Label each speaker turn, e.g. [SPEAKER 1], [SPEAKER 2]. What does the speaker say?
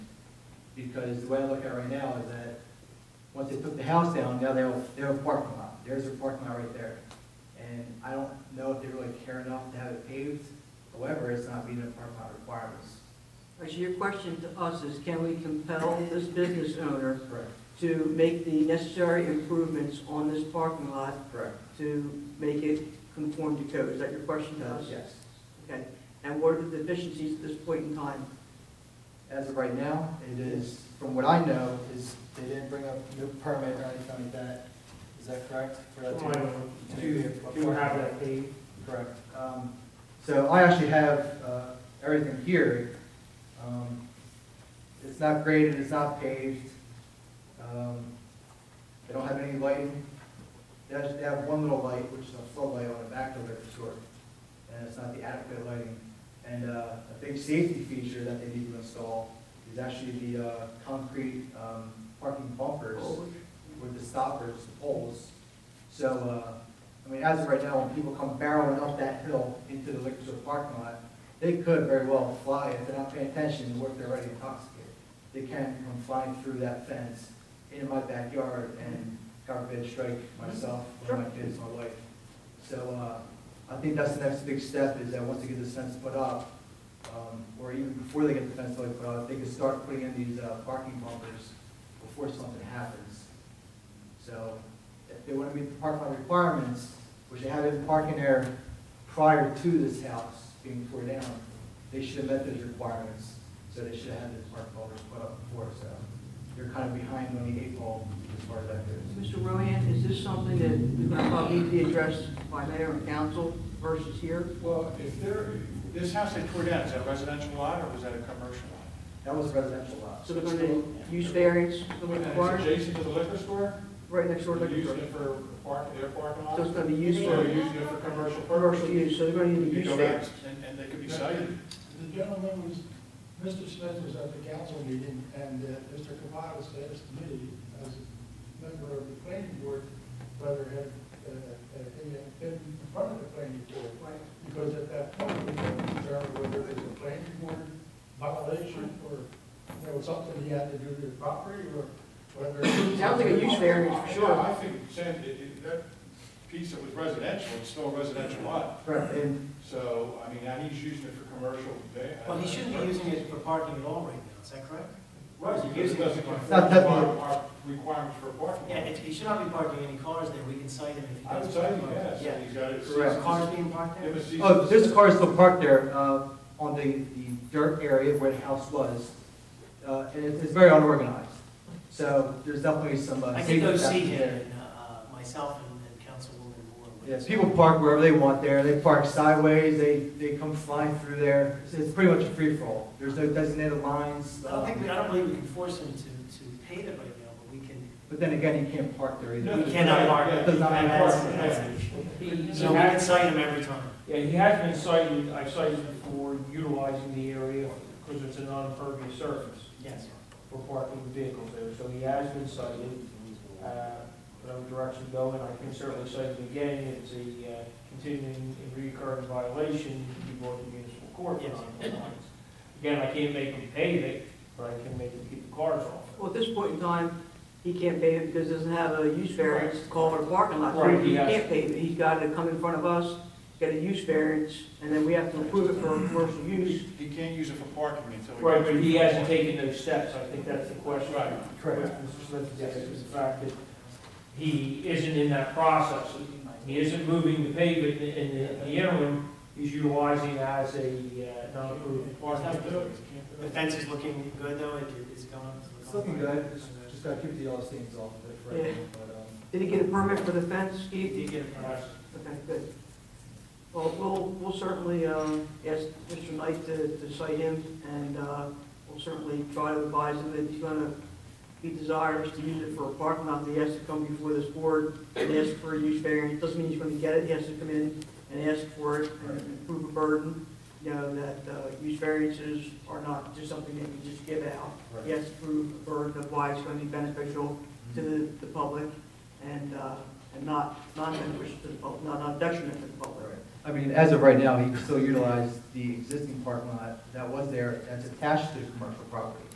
[SPEAKER 1] Because the way I look at it right now is that, once they took the house down, now they have, they have a parking lot, there's a parking lot right there. And I don't know if they really care enough to have it paved, however, it's not meeting the parking lot requirements.
[SPEAKER 2] So your question to us is, can we compel this business owner
[SPEAKER 1] Correct.
[SPEAKER 2] to make the necessary improvements on this parking lot
[SPEAKER 1] Correct.
[SPEAKER 2] to make it conform to code? Is that your question to us?
[SPEAKER 1] Yes.
[SPEAKER 2] Okay. And what are the deficiencies at this point in time?
[SPEAKER 1] As of right now, it is, from what I know, is they didn't bring up no permit or anything like that. Is that correct? For that to- to
[SPEAKER 3] Do,
[SPEAKER 1] be a
[SPEAKER 3] do
[SPEAKER 1] parking
[SPEAKER 3] have
[SPEAKER 1] lot?
[SPEAKER 3] that paved?
[SPEAKER 1] Correct. Um, So I actually have uh, everything here. Um, It's not graded, it's not paved. Um, They don't have any lighting. They actually they have one little light, which is a floodlight on the back of it for sure. And it's not the adequate lighting. And uh, a big safety feature that they need to install is actually the uh, concrete um, parking bumpers
[SPEAKER 2] Oh,
[SPEAKER 1] with the stoppers, the poles. So, uh, I mean, as of right now, when people come barreling up that hill into the liquor store parking lot, they could very well fly if they're not paying attention to what they're already intoxicated. They can come flying through that fence into my backyard and, God forbid, strike myself or my kids, my wife. So, uh, I think that's the next big step is that once they get this fence put up, um, or even before they get the fence like put up, they can start putting in these, uh, parking bumpers before something happens. So if they want to meet the park lot requirements, which they had in parking there prior to this house being tore down, they should have met those requirements. So they should have had the park bumpers put up before, so they're kind of behind on the eight ball as far as that goes.
[SPEAKER 2] Mr. Rohan, is this something that we're going to probably need to be addressed by mayor and council versus here?
[SPEAKER 4] Well, if there, this house they tore down, is that a residential lot or was that a commercial lot?
[SPEAKER 1] That was a residential lot.
[SPEAKER 2] So they're going to use variance, the
[SPEAKER 4] And it's
[SPEAKER 2] required,
[SPEAKER 4] adjacent to the liquor store?
[SPEAKER 2] right next door to
[SPEAKER 4] They're
[SPEAKER 2] liquor store.
[SPEAKER 4] using it for park, their parking lot?
[SPEAKER 2] So it's
[SPEAKER 4] So
[SPEAKER 2] going to be used
[SPEAKER 4] they're
[SPEAKER 2] for
[SPEAKER 4] using it for commercial
[SPEAKER 2] commercial
[SPEAKER 4] purposes?
[SPEAKER 2] use, so they're going to need a
[SPEAKER 4] You
[SPEAKER 2] use
[SPEAKER 4] go back
[SPEAKER 2] variance.
[SPEAKER 4] and, and they could be cited.
[SPEAKER 5] The gentleman was, Mr. Smith was at the council meeting, and uh, Mr. Kamal was asked me, as a member of the planning board, whether it had, uh, uh, he had been in front of the planning board. Because at that point, we couldn't determine whether it was a planning board violation, or, you know, something he had to do to the property, or whether.
[SPEAKER 2] Sounds like a use variance for
[SPEAKER 4] Yeah, Uh, I
[SPEAKER 2] sure.
[SPEAKER 4] think, Sam, it- it- that piece that was residential, it's still a residential lot.
[SPEAKER 1] Correct, and
[SPEAKER 4] So, I mean, now he's using it for commercial. ba-
[SPEAKER 3] Well, he shouldn't be using it for parking at all right now, is that correct?
[SPEAKER 4] Right,
[SPEAKER 3] He's
[SPEAKER 4] because it
[SPEAKER 3] using it
[SPEAKER 4] doesn't
[SPEAKER 3] for
[SPEAKER 4] conform
[SPEAKER 3] parking.
[SPEAKER 1] Not
[SPEAKER 4] to
[SPEAKER 1] that
[SPEAKER 4] our
[SPEAKER 1] one.
[SPEAKER 4] our requirements for a parking
[SPEAKER 3] Yeah,
[SPEAKER 4] lot.
[SPEAKER 3] it, he should not be parking any cars there, we can cite him if he
[SPEAKER 4] I
[SPEAKER 3] does.
[SPEAKER 4] would say yes,
[SPEAKER 3] Yeah.
[SPEAKER 4] and he's got it.
[SPEAKER 1] Correct.
[SPEAKER 3] Are Cars being parked there?
[SPEAKER 4] It was seasonal.
[SPEAKER 1] oh, there's cars still parked there uh, on the the dirt area where the house was. Uh, And it's it's very unorganized. So there's definitely some. uh,
[SPEAKER 3] I did go
[SPEAKER 1] safety
[SPEAKER 3] see
[SPEAKER 1] factors
[SPEAKER 3] him,
[SPEAKER 1] there.
[SPEAKER 3] and, uh, uh, myself and and Councilwoman Moore. went.
[SPEAKER 1] Yes, people park wherever they want there, they park sideways, they, they come flying through there, it's, it's pretty much a free-for-all, there's no designated lines.
[SPEAKER 3] I don't think, we- I
[SPEAKER 1] um,
[SPEAKER 3] don't believe we can force him to, to pay that right now, but we can,
[SPEAKER 1] But then again, you can't park there
[SPEAKER 4] No,
[SPEAKER 1] either.
[SPEAKER 4] no,
[SPEAKER 3] we cannot park.
[SPEAKER 4] yeah,
[SPEAKER 3] it.
[SPEAKER 1] Does not
[SPEAKER 3] And
[SPEAKER 1] park,
[SPEAKER 3] that's- that's
[SPEAKER 4] yeah.
[SPEAKER 3] an issue.
[SPEAKER 6] He-
[SPEAKER 3] So we can cite him every time.
[SPEAKER 6] Yeah, he has been cited, I've cited him for utilizing the area because it's a non-impervious surface
[SPEAKER 3] Yes.
[SPEAKER 6] for parking vehicles there. So he has been cited, uh, whatever direction going, I can certainly cite him again. It's a uh, continuing and recurring violation, he brought to municipal court for
[SPEAKER 3] Yes.
[SPEAKER 6] non-compliance. Again, I can't make him pay it, but I can make him keep the cars off.
[SPEAKER 2] Well, at this point in time, he can't pay it because he doesn't have a use variance to call it a parking lot. So
[SPEAKER 6] Right, he
[SPEAKER 2] He
[SPEAKER 6] has-
[SPEAKER 2] can't pay it. He's got to come in front of us, get a use variance, and then we have to approve it for commercial use.
[SPEAKER 4] He can't use it for parking until. he
[SPEAKER 6] Right,
[SPEAKER 4] goes
[SPEAKER 6] but he
[SPEAKER 4] through the
[SPEAKER 6] hasn't
[SPEAKER 4] park.
[SPEAKER 6] taken those steps, I think that's the question.
[SPEAKER 4] Right.
[SPEAKER 6] Correct. Mr. Smith, yes, is the fact that he isn't in that process. He isn't moving the pavement in the in the interim, he's utilizing as a uh, non-approved
[SPEAKER 4] Can't do
[SPEAKER 6] parking.
[SPEAKER 4] it. Can't do
[SPEAKER 3] The
[SPEAKER 4] it.
[SPEAKER 3] fence is looking good though, it is going. it's
[SPEAKER 1] It's looking good, just, just gotta keep the yellow stains off of it for
[SPEAKER 2] Yeah.
[SPEAKER 1] everyone, but, um,
[SPEAKER 2] Did he get a permit for the fence, Keith?
[SPEAKER 3] Did you get a permit?
[SPEAKER 2] Okay, good. Well, we'll, we'll certainly, um, ask Mr. Knight to, to cite him, and, uh, we'll certainly try to advise him that he's gonna, he desires to use it for a parking lot, that he has to come before this board and ask for a use variance, doesn't mean he's gonna get it, he has to come in and ask for it, and prove a burden, you know, that, uh, use variances are not just something that you just give out.
[SPEAKER 1] Right.
[SPEAKER 2] He has to prove a burden of why it's gonna be beneficial to the, the public, and, uh, and not, not beneficial to the public, not, not detriment to the public.
[SPEAKER 1] Right. I mean, as of right now, he can still utilize the existing parking lot that was there, that's attached to the commercial property.